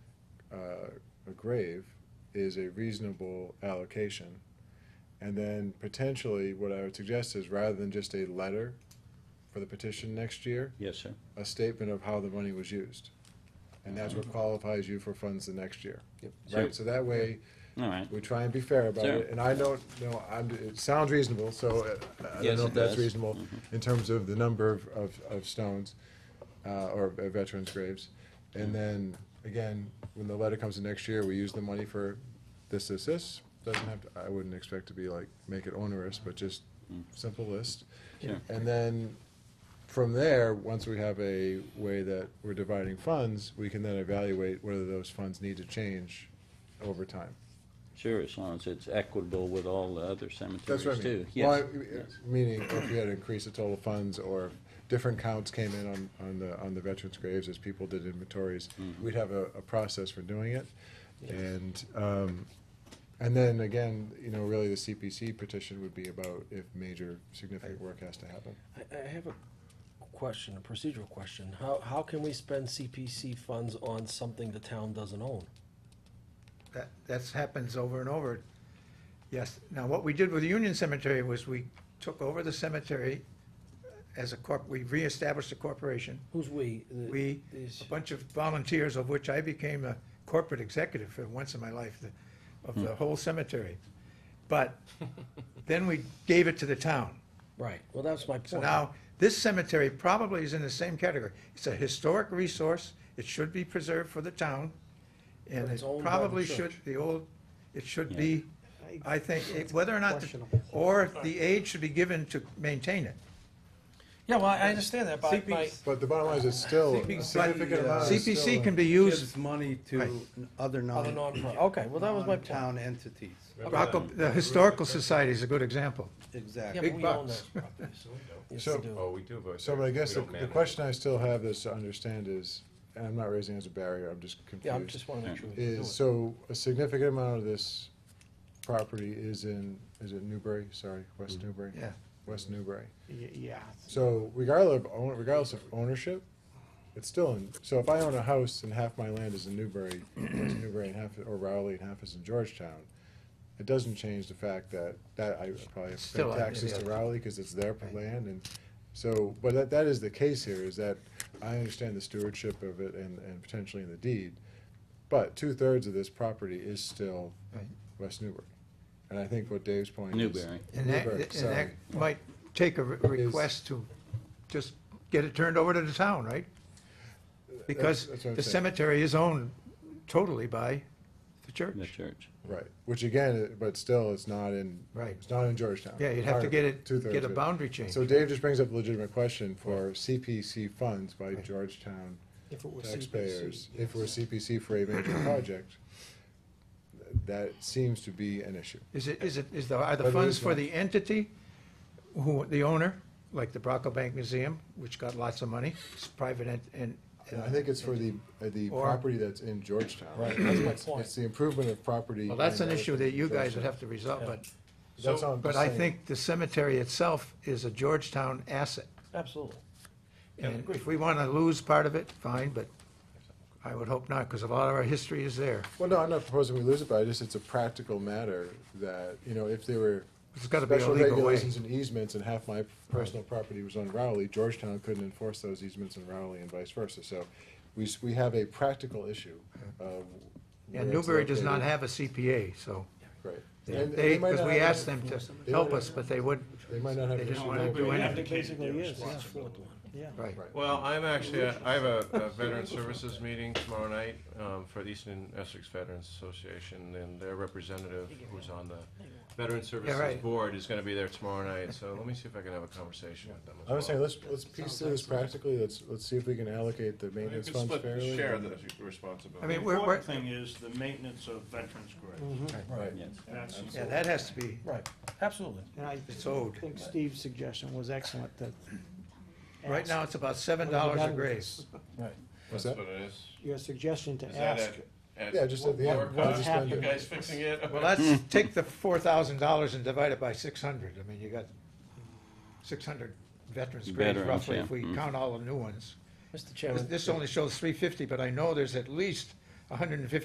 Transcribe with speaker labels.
Speaker 1: uh, grave is a reasonable allocation. And then potentially, what I would suggest is rather than just a letter for the petition next year,
Speaker 2: Yes, sir.
Speaker 1: a statement of how the money was used. And that's what qualifies you for funds the next year.
Speaker 3: Yep.
Speaker 1: Right, so that way,
Speaker 2: All right.
Speaker 1: we try and be fair about
Speaker 2: Sure.
Speaker 1: it, and I don't, know. I'm, it sounds reasonable, so uh, I don't
Speaker 2: Yes,
Speaker 1: know if that's
Speaker 2: it does. Mm-hmm.
Speaker 1: reasonable in terms of the number of, of, of stones, uh, or uh, veterans' graves. And then, again, when the letter comes in next year, we use the money for this, this, this, doesn't have, to I wouldn't expect to be like, make it onerous, but just simple list.
Speaker 2: Mm. Sure.
Speaker 1: And then, from there, once we have a way that we're dividing funds, we can then evaluate whether those funds need to change over time.
Speaker 2: Sure, as long as it's equitable with all the other cemeteries
Speaker 1: That's what I
Speaker 2: too.
Speaker 1: mean.
Speaker 2: Yes.
Speaker 1: Well, I-
Speaker 2: yes.
Speaker 1: Meaning, if we had increased the total funds, or if different counts came in on, on the, on the veterans' graves as people did inventories, we'd have a, a process for doing it. And, um, and then again, you know, really the CPC petition would be about if major significant work has to happen.
Speaker 3: I, I have a question, a procedural question. How, how can we spend CPC funds on something the town doesn't own?
Speaker 4: That, that's happens over and over. Yes, now what we did with the Union Cemetery was we took over the cemetery as a corp, we reestablished a corporation.
Speaker 3: Who's we? The-
Speaker 4: We,
Speaker 3: these-
Speaker 4: a bunch of volunteers, of which I became a corporate executive for once in my life, the- of the whole cemetery. But then we gave it to the town.
Speaker 3: Right, well, that's my point.
Speaker 4: So now, this cemetery probably is in the same category. It's a historic resource, it should be preserved for the town, and
Speaker 3: But it's
Speaker 4: it
Speaker 3: owned by the
Speaker 4: probably
Speaker 3: church.
Speaker 4: should, the old, it should
Speaker 2: Yeah.
Speaker 4: be, I think, it- whether or not, the- or the aid should be given to maintain it.
Speaker 3: Yeah, well, I understand that, but my,
Speaker 4: CPC
Speaker 1: But the bottom line is, it's still a
Speaker 4: CPC,
Speaker 1: significant amount. is
Speaker 4: CPC
Speaker 1: still-
Speaker 4: can be
Speaker 5: gives
Speaker 4: used,
Speaker 5: money
Speaker 4: Right.
Speaker 5: to other
Speaker 3: other
Speaker 5: non,
Speaker 3: non, okay, well, that was my point.
Speaker 5: town entities.
Speaker 4: Rocco- the Historical Society is a good example.
Speaker 3: Yeah,
Speaker 5: Exactly.
Speaker 3: but
Speaker 4: Big
Speaker 3: we own
Speaker 4: bucks.
Speaker 3: that. Yes,
Speaker 1: So-
Speaker 3: we do.
Speaker 6: Oh, we do, but.
Speaker 1: So, but I guess the,
Speaker 6: we don't
Speaker 1: the
Speaker 6: manage.
Speaker 1: question I still have this to understand is, and I'm not raising it as a barrier, I'm just confused.
Speaker 3: Yeah, I just wanna make sure we can do
Speaker 1: Is,
Speaker 3: it.
Speaker 1: so a significant amount of this property is in, is it Newbury, sorry, West Newbury?
Speaker 4: Yeah.
Speaker 1: West Newbury.
Speaker 4: Yeah.
Speaker 1: So regardless of, own- regardless of ownership, it's still in, so if I own a house and half my land is in Newbury, West Newbury and half, or Rowley and half is in Georgetown, it doesn't change the fact that, that I probably have to
Speaker 4: Still,
Speaker 1: pay
Speaker 4: I-
Speaker 1: taxes to
Speaker 4: yeah.
Speaker 1: Rowley, cause it's their land, and so, but that, that is the case here, is that I understand the stewardship of it and, and potentially in the deed, but two-thirds of this property is still
Speaker 4: Right.
Speaker 1: West Newbury. And I think what Dave's point is.
Speaker 2: Newbury.
Speaker 4: And that,
Speaker 1: Newbury,
Speaker 4: and
Speaker 1: sorry.
Speaker 4: that might take a re- request to just get it turned over to the town, right?
Speaker 1: That's-
Speaker 4: Because
Speaker 1: that's what I'm
Speaker 4: the
Speaker 1: saying.
Speaker 4: cemetery is owned totally by the
Speaker 1: uh,
Speaker 4: church.
Speaker 2: The church.
Speaker 1: Right, which again, uh, but still, it's not in,
Speaker 4: Right.
Speaker 1: it's not in Georgetown.
Speaker 4: Yeah, you'd have to get it,
Speaker 1: Two-thirds
Speaker 4: get a
Speaker 1: of it.
Speaker 4: boundary change.
Speaker 1: So Dave just brings up a legitimate question for CPC funds by Georgetown
Speaker 3: If it were
Speaker 1: taxpayers. If we're CPC for a major project, th- that seems to be an issue.
Speaker 4: Is it, is it, is the, are
Speaker 1: But
Speaker 4: the
Speaker 1: it
Speaker 4: funds
Speaker 1: is
Speaker 4: for
Speaker 1: not.
Speaker 4: the entity, who, the owner, like the Brocco Bank Museum, which got lots of money, it's private and, and.
Speaker 1: And I think it's for the, uh, the
Speaker 4: Or-
Speaker 1: property that's in Georgetown. Right,
Speaker 3: that's my point.
Speaker 1: It's the improvement of property.
Speaker 4: Well, that's
Speaker 1: in
Speaker 4: an issue that you guys
Speaker 1: Georgetown.
Speaker 4: would have to resolve, but,
Speaker 1: That's all I'm
Speaker 4: but
Speaker 1: just
Speaker 4: I
Speaker 1: saying.
Speaker 4: think the cemetery itself is a Georgetown asset.
Speaker 3: Absolutely.
Speaker 4: And if we wanna lose part of it, fine, but I would hope not, because a lot of our history is there.
Speaker 1: Well, no, I'm not proposing we lose it, but I just, it's a practical matter that, you know, if there were.
Speaker 4: It's gotta be eh? a
Speaker 1: special
Speaker 4: legal way.
Speaker 1: regulations and easements, and half my personal property was on Rowley, Georgetown couldn't enforce those easements in Rowley and vice versa, so we, s- we have a practical issue of. where
Speaker 4: And
Speaker 1: it's
Speaker 4: Newbury does not
Speaker 1: located.
Speaker 4: have a CPA, so
Speaker 1: Right.
Speaker 4: they,
Speaker 1: And- and they might
Speaker 4: because
Speaker 1: not
Speaker 4: we
Speaker 1: have-
Speaker 4: asked them to help us, but they wouldn't,
Speaker 1: They might not have.
Speaker 4: they
Speaker 1: an
Speaker 4: just
Speaker 1: issue
Speaker 4: wanted to do anything,
Speaker 3: Basically, yes,
Speaker 4: right.
Speaker 1: Right.
Speaker 6: Well, I'm actually, uh, I have a a Veteran Services meeting tomorrow night um, for the Eastern Essex Veterans Association, and their representative, who's on the Veteran Services
Speaker 4: right.
Speaker 6: Board, is gonna be there tomorrow night, so let me see if I can have a conversation with them as
Speaker 1: I
Speaker 6: well.
Speaker 1: was saying, let's, let's piece through this practically, let's, let's see if we can allocate the
Speaker 6: We
Speaker 1: maintenance
Speaker 6: could
Speaker 1: funds
Speaker 6: split-
Speaker 1: fairly.
Speaker 6: Share
Speaker 1: and-
Speaker 6: the responsibility.
Speaker 4: I mean,
Speaker 7: The
Speaker 4: we're, we're,
Speaker 7: important thing is the maintenance of veterans' graves.
Speaker 8: Mm-hmm.
Speaker 1: Right.
Speaker 2: Yes.
Speaker 7: That's
Speaker 4: yeah, that has to be,
Speaker 3: right, absolutely.
Speaker 8: And I
Speaker 4: it's owed.
Speaker 8: think Steve's suggestion was excellent, that
Speaker 4: Right now, it's about seven dollars a
Speaker 8: done with
Speaker 4: grave.
Speaker 8: this?
Speaker 1: What's
Speaker 6: That's
Speaker 1: that?
Speaker 6: what it is.
Speaker 8: your suggestion to
Speaker 6: Is that
Speaker 8: ask,
Speaker 6: it? At
Speaker 1: Yeah, just at the end.
Speaker 6: lower
Speaker 1: What's
Speaker 6: cost?
Speaker 8: happened?
Speaker 6: You guys fixing it?
Speaker 4: Well, let's take the four thousand dollars and divide it by six hundred, I mean, you got six hundred veterans graves
Speaker 2: Veterans,
Speaker 4: roughly, if
Speaker 2: yeah,
Speaker 4: we
Speaker 2: mm.
Speaker 4: count all the new ones.
Speaker 3: Mr.
Speaker 4: This-
Speaker 3: Chairman.
Speaker 4: This only shows three fifty, but I know there's at least hundred and fifty